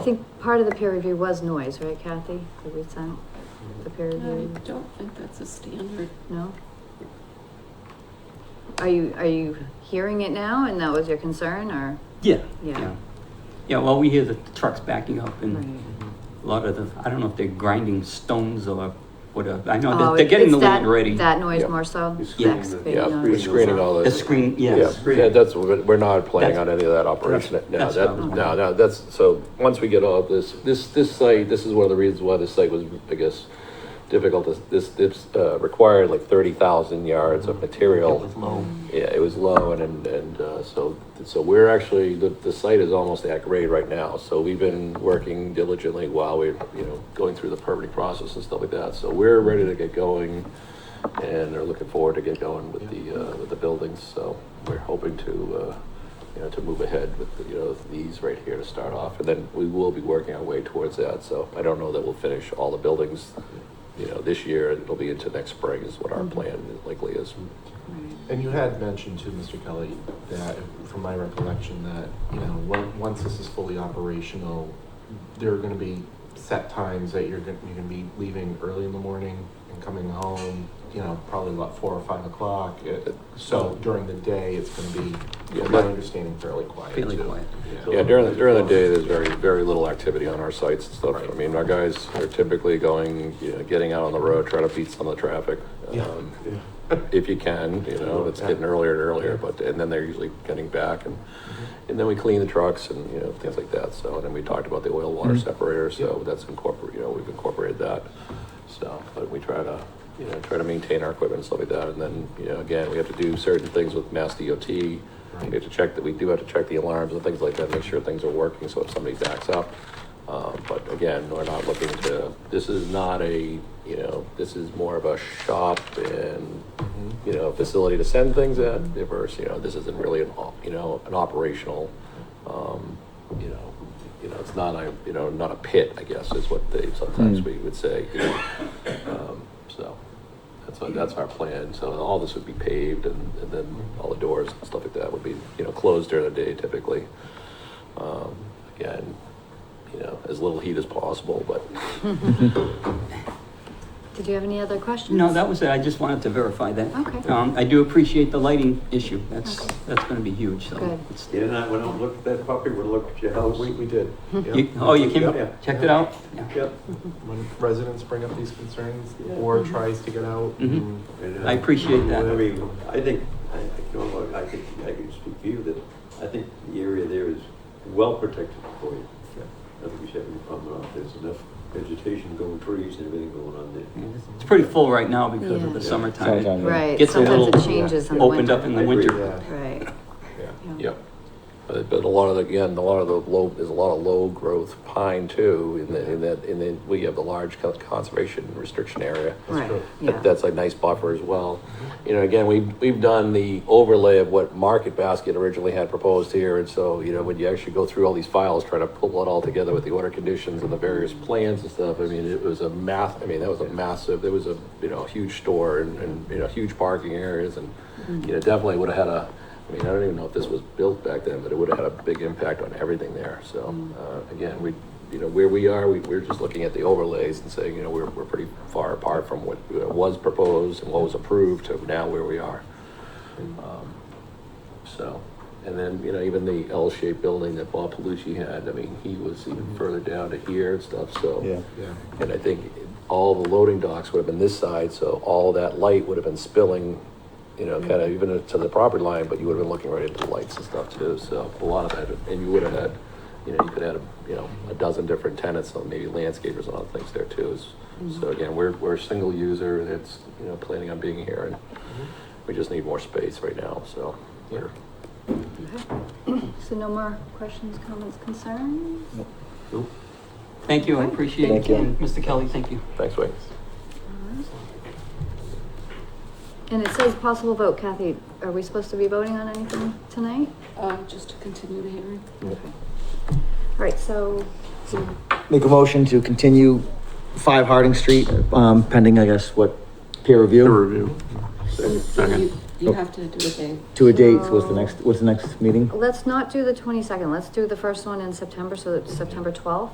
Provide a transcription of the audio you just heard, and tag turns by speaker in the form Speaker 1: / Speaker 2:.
Speaker 1: I think part of the peer review was noise, right Kathy, that we sent, the peer
Speaker 2: Um, I
Speaker 1: review,
Speaker 2: don't think that's a standard.
Speaker 1: no? Are you, are you hearing it now and that was your concern or,
Speaker 3: Yeah,
Speaker 1: yeah?
Speaker 3: yeah. Yeah, well, we hear the trucks backing up and
Speaker 1: Right.
Speaker 3: a lot of the, I don't know if they're grinding stones or whatever. I know
Speaker 1: Oh,
Speaker 3: they're, they're getting
Speaker 1: it's
Speaker 3: the
Speaker 1: that-
Speaker 3: land ready.
Speaker 1: That noise
Speaker 4: Yeah.
Speaker 1: more so?
Speaker 5: It's
Speaker 1: The
Speaker 3: screening
Speaker 5: the-
Speaker 1: excavating
Speaker 4: Yeah,
Speaker 1: noise?
Speaker 4: we're screening all
Speaker 3: The
Speaker 4: this.
Speaker 3: screen,
Speaker 4: Yeah,
Speaker 3: yes.
Speaker 4: yeah, that's, we're we're not planning
Speaker 3: That's-
Speaker 4: on any of that operation
Speaker 3: that's-
Speaker 4: now,
Speaker 3: that's
Speaker 4: that,
Speaker 3: what I'm-
Speaker 4: no, no, that's, so, once we get all of this, this, this site, this is one of the reasons why this site was, I guess, difficult, This- this, this, uh, required like thirty thousand yards of
Speaker 3: It
Speaker 4: material.
Speaker 3: was low.
Speaker 4: Yeah, it was low and, and, and, uh, so, so we're actually, the, the site is almost at grade right now, so we've been working diligently while we're, you know, going through the permitting process and stuff like that, so we're ready to get going and are looking forward to get going with the, uh, with the buildings, so we're hoping to, uh, you know, to move ahead with, you know, these right here to start off, and then we will be working our way towards that, so I don't know that we'll finish all the buildings, you know, this year, it'll be into next spring is what our plan likely is.
Speaker 1: Right.
Speaker 5: And you had mentioned to Mr. Kelly that, from my recollection, that, you know, on- once this is fully operational, there are gonna be set times that you're gonna, you're gonna be leaving early in the morning and coming home, you know, probably about four or five o'clock. It- So during the day, it's gonna be,
Speaker 4: Yeah,
Speaker 5: from my
Speaker 4: but-
Speaker 5: understanding, fairly quiet
Speaker 3: Fairly
Speaker 5: too.
Speaker 3: quiet.
Speaker 4: Yeah, during, the during the day, there's very, very little activity on our sites and stuff. I
Speaker 5: Right.
Speaker 4: mean, our guys are typically going, you know, getting out on the road, trying to beat some of the traffic. um, If you can, you know, it's getting earlier and earlier, but, and then they're usually getting back and, and then we clean the trucks and, you know, things like that. So, and then we talked about the oil water
Speaker 3: Mhm.
Speaker 4: separator, so that's incorporated, you know, we've incorporated that. So, but we try to, you know, try to maintain our equipment and stuff like that. And then, you know, again, we have to do certain things with Mass DOT. We have to check that, we do have to check the alarms and things like that, make sure things are working, so if somebody backs up. Um, but again, we're not looking to, this is not a, you know, this is more of a shop and,
Speaker 5: Mhm.
Speaker 4: you know, facility to send things at, versus, you know, this isn't really an, op- you know, an operational, um, you know, you know, it's not a, you know, not a pit, I guess, is what they, sometimes
Speaker 3: Hmm.
Speaker 4: we would say, you know. Um, So, that's, our- that's our plan, so all this would be paved and, and then all the doors and stuff like that would be, you know, closed during the day typically. Um, Again, you know, as little heat as possible, but
Speaker 1: Did you have any other questions?
Speaker 3: No, that was it. I just wanted to verify that.
Speaker 1: Okay.
Speaker 3: Um, I do appreciate the lighting issue. That's,
Speaker 1: Okay.
Speaker 3: that's gonna be huge, so.
Speaker 1: Good.
Speaker 3: it's-
Speaker 6: Yeah, and I went out and looked at that property, we looked at your house.
Speaker 5: Oh, We, we did. yeah.
Speaker 3: You, oh, you came,
Speaker 6: Yeah.
Speaker 3: checked it out? Yeah.
Speaker 6: Yep.
Speaker 5: When residents bring up these concerns
Speaker 6: Yeah.
Speaker 5: or tries to get out.
Speaker 4: Mm-hmm.
Speaker 3: Mhm.
Speaker 5: and-
Speaker 6: And, uh,
Speaker 3: I appreciate that.
Speaker 6: I mean, I think, I, I can, only- I think, I can speak for you that I think the area there is well protected for you. I don't think we should have any problem at all. There's enough vegetation going, trees and everything going on there.
Speaker 3: Yeah, It's pretty full right now because of
Speaker 1: Yeah.
Speaker 3: the summertime. It
Speaker 1: Right,
Speaker 3: Gets a
Speaker 1: sometimes
Speaker 3: little
Speaker 1: it changes in the winter.
Speaker 3: Opened up in
Speaker 6: I
Speaker 3: the
Speaker 6: agree.
Speaker 3: winter.
Speaker 5: Yeah,
Speaker 1: Right,
Speaker 5: yeah.
Speaker 1: yeah.
Speaker 4: Yep. But but a lot of, the again, a lot of the low, there's a lot of low-growth pine too, in the- in that, in that, we have the large con- conservation restriction area.
Speaker 1: Right,
Speaker 5: true.
Speaker 1: yeah.
Speaker 4: That's a nice buffer as well. You know, again, we've, we've done the overlay of what Market Basket originally had proposed here, and so, you know, when you actually go through all these files, try to pull it all together with the order conditions and the various plans and stuff, I mean, it was a math, I mean, that was a massive, there was a, you know, huge store and, and, you know, huge parking areas, and, you know, definitely would have had a, I mean, I don't even know if this was built back then, but it would have had a big impact on everything there, so, uh, again, we, you know, where we are, we, we're just looking at the overlays and saying, you know, we're, we're pretty far apart from what uh, was proposed and what was approved to now where we are. Um, So, and then, you know, even the L-shaped building that Bob Palucci had, I mean, he was even further down to here and stuff, so.
Speaker 5: Yeah. Yeah.
Speaker 4: And I think all the loading docks would have been this side, so all that light would have been spilling, you know, kind of even to the property line, but you would have been looking right into the lights and stuff too, so a lot of that, and you would have had, you know, you could have had, you know, a dozen different tenants, so maybe landscapers and other things there too. is- So again, we're, we're a single user that's, you know, planning on being here, and we just need more space right now, so we're,
Speaker 1: Okay. So no more questions, comments, concerns?
Speaker 3: Thank you, I
Speaker 1: Okay,
Speaker 3: appreciate
Speaker 1: thank
Speaker 3: it.
Speaker 1: you.
Speaker 3: And Mr. Kelly, thank you.
Speaker 4: thanks, Wayne.
Speaker 1: And it says possible vote, Kathy, are we supposed to be voting on anything tonight?
Speaker 2: Uh, just to continue the hearing.
Speaker 1: Okay. All right, so, um,
Speaker 7: Make a motion to continue five Harding Street, um, pending, I guess, what, peer review?
Speaker 2: So you, you have to do a thing.
Speaker 7: To a date, so what's the next, what's the next meeting?
Speaker 1: let's not do the twenty-second, let's do the first one in September, so it's September twelfth.